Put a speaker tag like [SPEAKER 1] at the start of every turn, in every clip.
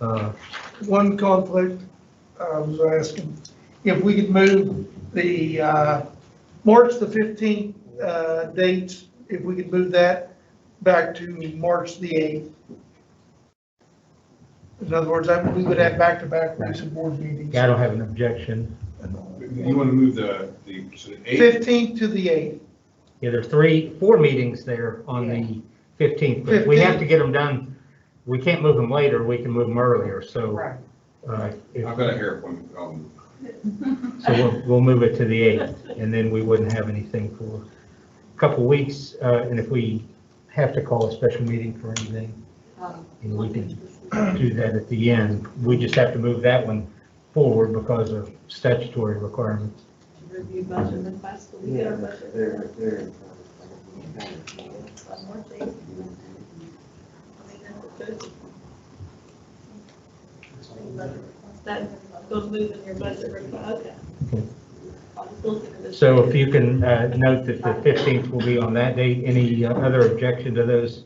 [SPEAKER 1] Uh,
[SPEAKER 2] One conflict I was asking, if we could move the uh, March the 15th uh, dates, if we could move that back to March the 8th. In other words, I- we would have back-to-back weeks of board meetings.
[SPEAKER 1] Yeah, I don't have an objection.
[SPEAKER 3] You want to move the, the, so the eighth,
[SPEAKER 2] 15th to the 8th.
[SPEAKER 1] Yeah, there's three, four meetings there on the 15th, but we have to get them done. We can't move them later, we can move them earlier, so.
[SPEAKER 4] Right.
[SPEAKER 1] uh, if-
[SPEAKER 3] I've got a hair appointment, I'll move.
[SPEAKER 1] So we'll, we'll move it to the 8th, and then we wouldn't have anything for a couple weeks. uh, And if we have to call a special meeting for anything,
[SPEAKER 4] Um,
[SPEAKER 1] and we can do that at the end. We just have to move that one forward because of statutory requirements.
[SPEAKER 4] Review budget and possibly get our budget.
[SPEAKER 5] They're, they're.
[SPEAKER 4] One more thing. I mean, that's good. Once That goes moving your budget, re- okay.
[SPEAKER 1] Okay.
[SPEAKER 4] I was looking at this.
[SPEAKER 1] So if you can uh, note that the 15th will be on that date, any uh, other objection to those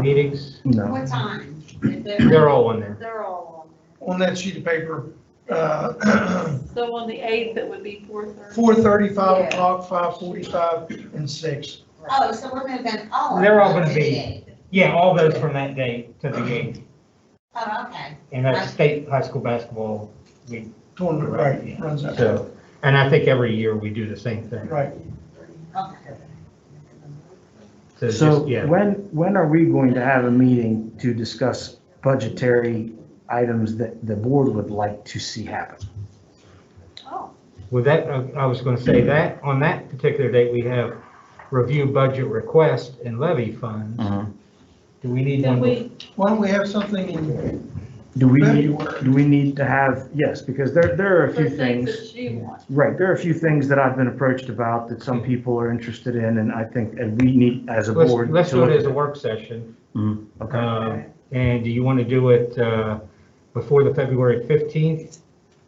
[SPEAKER 1] meetings?
[SPEAKER 6] What time?
[SPEAKER 1] They're all on there.
[SPEAKER 6] They're all
[SPEAKER 2] On that sheet of paper, uh,
[SPEAKER 4] So on the eighth, it would be four thirty.
[SPEAKER 2] 4:30, 5
[SPEAKER 6] Yeah.
[SPEAKER 2] o'clock, 5:45, and 6.
[SPEAKER 6] on. there. Oh, so we're moving all of them.
[SPEAKER 1] They're all gonna be-
[SPEAKER 6] today.
[SPEAKER 1] Yeah, all those from that date to the 8th,
[SPEAKER 6] Oh, okay.
[SPEAKER 1] and that's state high school basketball week.
[SPEAKER 2] Tournament, right, runs out.
[SPEAKER 1] So, and I think every year we do the same thing.
[SPEAKER 2] Right.
[SPEAKER 6] Okay.
[SPEAKER 1] So,
[SPEAKER 5] So
[SPEAKER 1] just- yeah,
[SPEAKER 5] when, when are we going to have a meeting to discuss budgetary items that the board would like to see happen?
[SPEAKER 4] Oh,
[SPEAKER 1] with that, uh, I was going to say that, on that particular date, we have review budget request and levy funds.
[SPEAKER 5] Mm.
[SPEAKER 1] Do we need one?
[SPEAKER 4] can we,
[SPEAKER 2] Why don't we have something
[SPEAKER 1] Um,
[SPEAKER 2] in
[SPEAKER 5] Do we need,
[SPEAKER 2] February?
[SPEAKER 5] do we need to have, yes, because there, there are a
[SPEAKER 4] for
[SPEAKER 5] few
[SPEAKER 4] things
[SPEAKER 5] things.
[SPEAKER 4] that she wants.
[SPEAKER 5] Right, there are a few things that I've been approached about that
[SPEAKER 1] Mm-hmm.
[SPEAKER 5] some people are interested in, and I think, and we need as a
[SPEAKER 1] Let's,
[SPEAKER 5] board.
[SPEAKER 1] let's
[SPEAKER 5] to
[SPEAKER 1] do
[SPEAKER 5] look
[SPEAKER 1] it
[SPEAKER 5] at
[SPEAKER 1] as a work session.
[SPEAKER 5] Mm, Okay,
[SPEAKER 1] Um, And do you want to do it uh, before the February 15th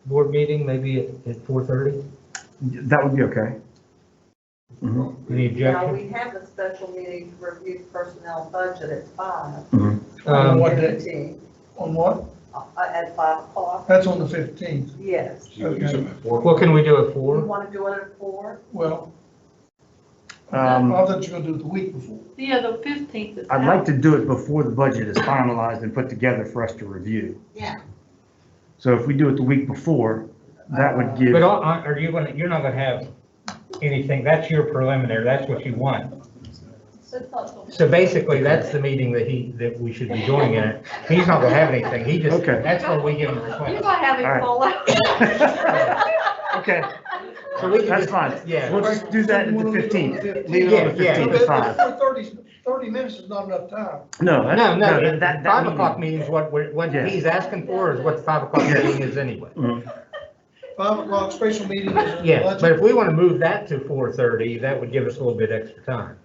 [SPEAKER 1] board meeting, maybe at- at 4:30?
[SPEAKER 5] that would be okay. Mhm.
[SPEAKER 1] Any
[SPEAKER 7] Now,
[SPEAKER 1] objection?
[SPEAKER 7] we have a special meeting to review personnel budget at five.
[SPEAKER 2] On
[SPEAKER 1] Um,
[SPEAKER 2] what day?
[SPEAKER 7] Fifteen,
[SPEAKER 2] On what?
[SPEAKER 7] uh, At five o'clock,
[SPEAKER 2] That's on the 15th.
[SPEAKER 3] So
[SPEAKER 7] yes.
[SPEAKER 3] you can do something at four.
[SPEAKER 1] What can we do at
[SPEAKER 7] You
[SPEAKER 1] 4?
[SPEAKER 7] want to do it at four?
[SPEAKER 2] Well, I
[SPEAKER 5] Um,
[SPEAKER 2] thought you were gonna do it the week before.
[SPEAKER 4] Yeah, the fifteenth is out.
[SPEAKER 5] I'd like to do it before the budget is finalized and put together for us to review.
[SPEAKER 6] Yeah.
[SPEAKER 5] So if we do it the week before, that would give,
[SPEAKER 1] But are- are you going to, you're not going to have anything, that's your preliminary, that's what you want.
[SPEAKER 4] So it's not-
[SPEAKER 1] So basically, that's the meeting that he, that we should be joining in it. He's not going to have anything, he just,
[SPEAKER 5] Okay.
[SPEAKER 1] that's where we give him the
[SPEAKER 4] You're
[SPEAKER 1] request.
[SPEAKER 4] gonna have
[SPEAKER 5] All
[SPEAKER 4] him
[SPEAKER 5] right.
[SPEAKER 4] fall out.
[SPEAKER 5] okay,
[SPEAKER 1] So we can
[SPEAKER 5] that's
[SPEAKER 1] just-
[SPEAKER 5] fine.
[SPEAKER 1] Yeah,
[SPEAKER 5] We'll just do that at the
[SPEAKER 2] We'll leave it on the
[SPEAKER 5] 15th. Leave it on the
[SPEAKER 1] Yeah, yeah.
[SPEAKER 5] 15th at 5.
[SPEAKER 2] But Thirty, thirty minutes is not enough time.
[SPEAKER 5] No, that-
[SPEAKER 1] no, no,
[SPEAKER 5] that-
[SPEAKER 1] the
[SPEAKER 5] that- that
[SPEAKER 1] five
[SPEAKER 5] meeting-
[SPEAKER 1] o'clock meeting is what, we're- what
[SPEAKER 5] Yeah.
[SPEAKER 1] he's asking for is what the five o'clock
[SPEAKER 5] Yeah.
[SPEAKER 1] meeting is anyway.
[SPEAKER 5] Mhm.
[SPEAKER 2] Five o'clock special meeting is on the
[SPEAKER 1] Yeah, but if
[SPEAKER 2] budget.
[SPEAKER 1] we want to move that to four thirty, that would give us a little bit extra time.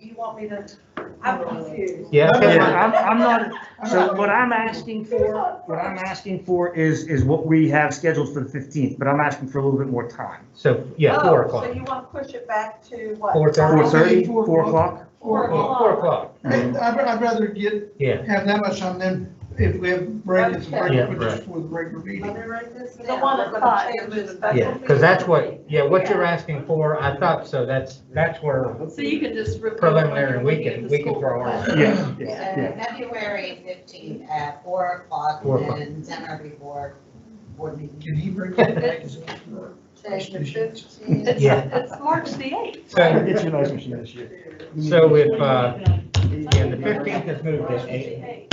[SPEAKER 7] You want me to, I'm confused.
[SPEAKER 1] Yeah,
[SPEAKER 5] Yeah,
[SPEAKER 1] okay.
[SPEAKER 5] I'm, I'm not, so what I'm asking for, what I'm asking for is, is what we have scheduled for the 15th, but I'm asking for a little bit more time.
[SPEAKER 1] so, yeah, four
[SPEAKER 7] Oh, So
[SPEAKER 1] o'clock.
[SPEAKER 7] you want to push it back to what?
[SPEAKER 1] 4:30?
[SPEAKER 7] five?
[SPEAKER 5] 4:30,
[SPEAKER 2] Four
[SPEAKER 5] 4
[SPEAKER 2] o'clock.
[SPEAKER 5] o'clock? Mm-hmm.
[SPEAKER 7] Four o'clock.
[SPEAKER 1] Four o'clock,
[SPEAKER 2] I'd, I'd rather get,
[SPEAKER 1] yeah.
[SPEAKER 2] have that much time than if we have break, it's a
[SPEAKER 1] Yeah,
[SPEAKER 2] break, which is
[SPEAKER 1] right.
[SPEAKER 2] for the regular
[SPEAKER 7] Let
[SPEAKER 2] meeting.
[SPEAKER 7] me write this
[SPEAKER 4] The
[SPEAKER 7] down.
[SPEAKER 4] one
[SPEAKER 7] We're gonna
[SPEAKER 4] o'clock is
[SPEAKER 7] change the
[SPEAKER 4] the-
[SPEAKER 7] special
[SPEAKER 1] Yeah, because that's what,
[SPEAKER 7] meeting.
[SPEAKER 1] yeah, what you're asking for, I thought, so that's, that's where,
[SPEAKER 4] So you can just. review it
[SPEAKER 1] Preliminary,
[SPEAKER 4] when
[SPEAKER 1] we
[SPEAKER 4] you get
[SPEAKER 1] can-
[SPEAKER 4] to
[SPEAKER 1] we can
[SPEAKER 4] school.
[SPEAKER 1] throw our-
[SPEAKER 5] Yeah, yeah,
[SPEAKER 6] So Uh,
[SPEAKER 5] yeah.
[SPEAKER 6] February fifteenth at four o'clock
[SPEAKER 1] Four o'clock.
[SPEAKER 6] and seminar before board meeting.
[SPEAKER 2] Can he break that back? Is it-
[SPEAKER 7] Change the fifteen.
[SPEAKER 1] yeah.
[SPEAKER 4] It's March the eighth.
[SPEAKER 5] I'll
[SPEAKER 1] So,
[SPEAKER 5] Get you a nice machine this year.
[SPEAKER 1] so if, uh, yeah, the fifteenth is moved to eight.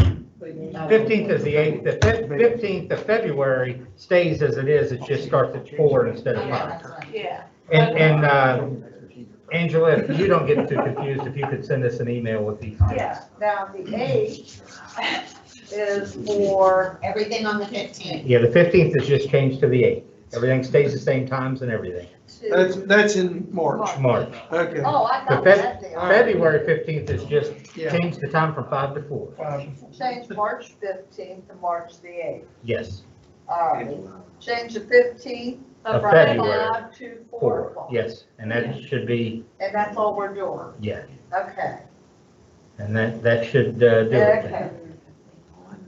[SPEAKER 1] Fifteenth is the eighth, the fifteenth of February stays as it is, it just starts at four instead of
[SPEAKER 6] Yeah,
[SPEAKER 1] five.
[SPEAKER 6] that's right.
[SPEAKER 4] Yeah.
[SPEAKER 1] And, and, uh, Angela, if you don't get too confused, if you could send us an email with these.
[SPEAKER 7] Yeah, now the eight is for,
[SPEAKER 6] Everything on the fifteenth.
[SPEAKER 1] Yeah, the fifteenth is just changed to the eighth. Everything stays the same times and everything.
[SPEAKER 2] That's,
[SPEAKER 7] to,
[SPEAKER 2] that's in March.
[SPEAKER 1] March.
[SPEAKER 2] Okay,
[SPEAKER 7] oh, I
[SPEAKER 1] The
[SPEAKER 7] thought
[SPEAKER 1] Feb-
[SPEAKER 7] that deal.
[SPEAKER 1] February fifteenth is just
[SPEAKER 2] yeah.
[SPEAKER 1] change the time from five to four.
[SPEAKER 2] five to four.
[SPEAKER 7] Change March fifteenth to March the eighth.
[SPEAKER 1] Yes,
[SPEAKER 7] All right.
[SPEAKER 1] uh,
[SPEAKER 7] Change the fifteenth
[SPEAKER 1] Of
[SPEAKER 7] from
[SPEAKER 1] February.
[SPEAKER 7] five to four
[SPEAKER 1] four,
[SPEAKER 7] o'clock.
[SPEAKER 1] yes. And that should be,
[SPEAKER 7] And that's all we're doing.
[SPEAKER 1] yeah,
[SPEAKER 7] Okay.
[SPEAKER 1] and that, that should uh, do it.
[SPEAKER 7] Okay.